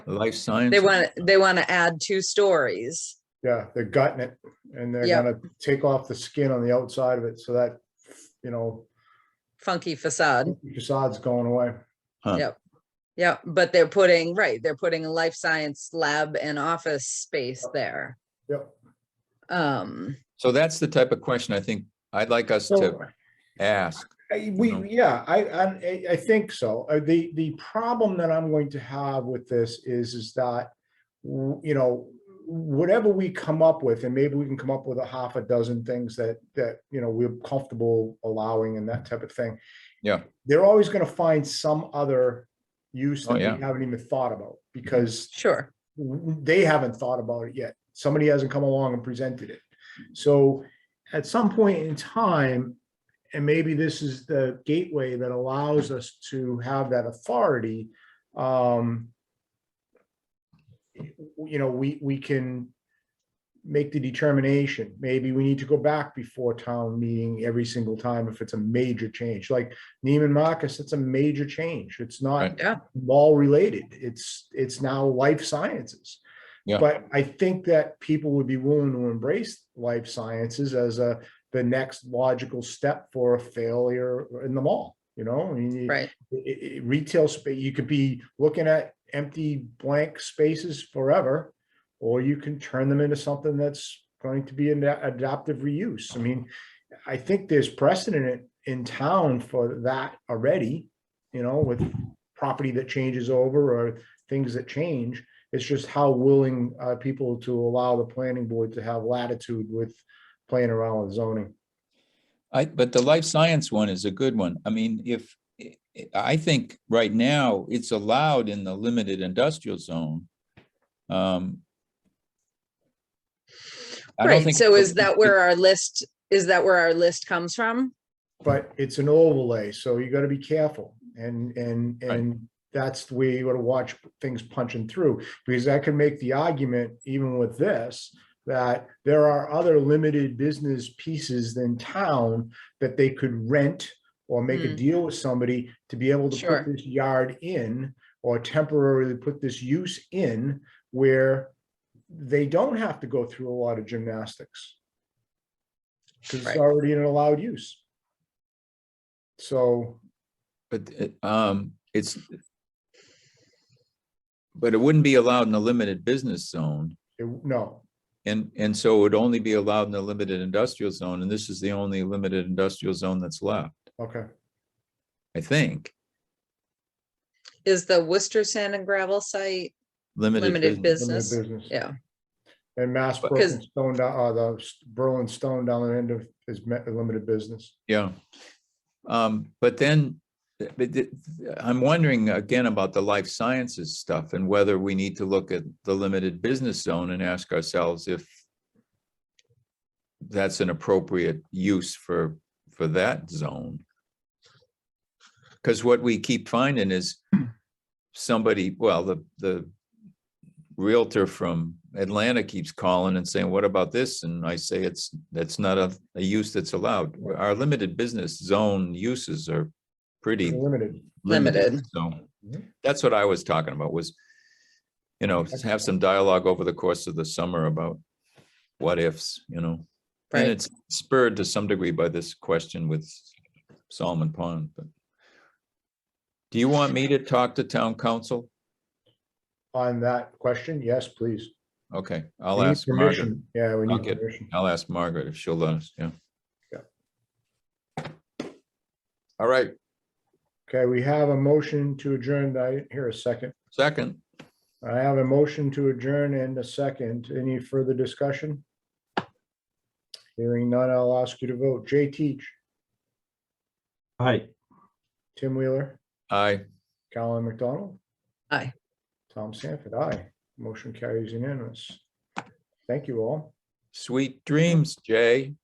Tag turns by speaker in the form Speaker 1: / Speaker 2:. Speaker 1: Life science.
Speaker 2: They want, they want to add two stories.
Speaker 3: Yeah, they're gutting it and they're
Speaker 2: Yep.
Speaker 3: gonna take off the skin on the outside of it so that, you know,
Speaker 2: Funky facade.
Speaker 3: facade's going away.
Speaker 1: Huh.
Speaker 2: Yep. Yeah, but they're putting, right, they're putting a life science lab and office space there.
Speaker 3: Yep.
Speaker 2: Um,
Speaker 1: So that's the type of question I think I'd like us to
Speaker 3: So,
Speaker 1: ask.
Speaker 3: I- we,
Speaker 1: know.
Speaker 3: yeah, I, I'm- I, I think so. Uh, The, the problem that I'm going to have with this is, is that, w- you know, whatever we come up with, and maybe we can come up with a half a dozen things that, that, you know, we're comfortable allowing and that type of thing.
Speaker 1: Yeah.
Speaker 3: They're always gonna find some other use
Speaker 1: Oh,
Speaker 3: that we
Speaker 1: yeah.
Speaker 3: haven't even thought about because
Speaker 2: sure,
Speaker 3: they haven't thought about it yet. Somebody hasn't come along and presented it. So at some point in time, and maybe this is the gateway that allows us to have that authority, um, you know, we, we can make the determination. Maybe we need to go back before town meeting every single time if it's a major change. Like Neiman Marcus, it's a major change. It's not
Speaker 1: Right.
Speaker 2: Yeah.
Speaker 3: mall related. It's, it's now life sciences.
Speaker 1: Yeah.
Speaker 3: But I think that people would be willing to embrace life sciences as a, the next logical step for a failure in the mall, you know? I mean, you-
Speaker 2: right,
Speaker 3: i- i- retail space, you could be looking at empty blank spaces forever. Or you can turn them into something that's going to be an a- adaptive reuse. I mean, I think there's precedent in in town for that already. You know, with property that changes over or things that change. It's just how willing uh people to allow the planning board to have latitude with playing around with zoning.
Speaker 1: I, but the life science one is a good one. I mean, if, I- I think right now it's allowed in the limited industrial zone. Um, I don't
Speaker 2: right.
Speaker 1: think-
Speaker 2: So is that where our list, is that where our list comes from?
Speaker 3: but it's an overlay, so you gotta be careful and, and,
Speaker 1: Right.
Speaker 3: and that's the way you gotta watch things punching through, because I can make the argument even with this, that there are other limited business pieces than town that they could rent or make a
Speaker 2: Mm.
Speaker 3: deal with somebody to be able to
Speaker 2: Sure.
Speaker 3: put this yard in or temporarily put this use in where they don't have to go through a lot of gymnastics. Because it's
Speaker 2: Right.
Speaker 3: already in an allowed use. So,
Speaker 1: But, uh, um, it's. But it wouldn't be allowed in the limited business zone.
Speaker 3: it- no,
Speaker 1: And, and so it would only be allowed in the limited industrial zone, and this is the only limited industrial zone that's left,
Speaker 3: okay,
Speaker 1: I think.
Speaker 2: Is the Worcester Sand and Gravel site? Limited
Speaker 3: limited
Speaker 2: Business,
Speaker 3: business.
Speaker 2: Yeah,
Speaker 3: And Mass
Speaker 1: But-
Speaker 3: Broken
Speaker 2: 'Cause-
Speaker 3: Stone, down- uh, the s- Berlin Stone down the end of is me- limited business.
Speaker 1: Yeah. Um, but then, but th- I'm wondering again about the life sciences stuff and whether we need to look at the limited business zone and ask ourselves if that's an appropriate use for, for that zone. Because what we keep finding is somebody, well, the, the Realtor from Atlanta keeps calling and saying, what about this? And I say, it's, that's not a, a use that's allowed. Our limited business zone uses are pretty
Speaker 3: Limited.
Speaker 1: limited.
Speaker 2: Limited.
Speaker 1: So
Speaker 3: Mhm.
Speaker 1: that's what I was talking about was, you know, just have some dialogue over the course of the summer about what ifs, you know? And
Speaker 2: right.
Speaker 1: it's spurred to some degree by this question with Solomon Pond, but do you want me to talk to town council?
Speaker 3: On that question, yes, please.
Speaker 1: Okay, I'll
Speaker 3: We need
Speaker 1: ask Margaret.
Speaker 3: permission. Yeah, we
Speaker 1: I'll
Speaker 3: need
Speaker 1: get-
Speaker 3: permission.
Speaker 1: I'll ask Margaret if she'll let us, yeah.
Speaker 3: Yeah.
Speaker 1: All right,
Speaker 3: Okay, we have a motion to adjourn. I didn't hear a second.
Speaker 1: second,
Speaker 3: I have a motion to adjourn and a second. Any further discussion? Hearing none, I'll ask you to vote. Jay Teach,
Speaker 4: Hi,
Speaker 3: Tim Wheeler,
Speaker 1: aye,
Speaker 3: Colin McDonald.
Speaker 2: Aye.
Speaker 3: Tom Sanford, aye. Motion carries unanimous. Thank you all.
Speaker 1: sweet dreams, Jay.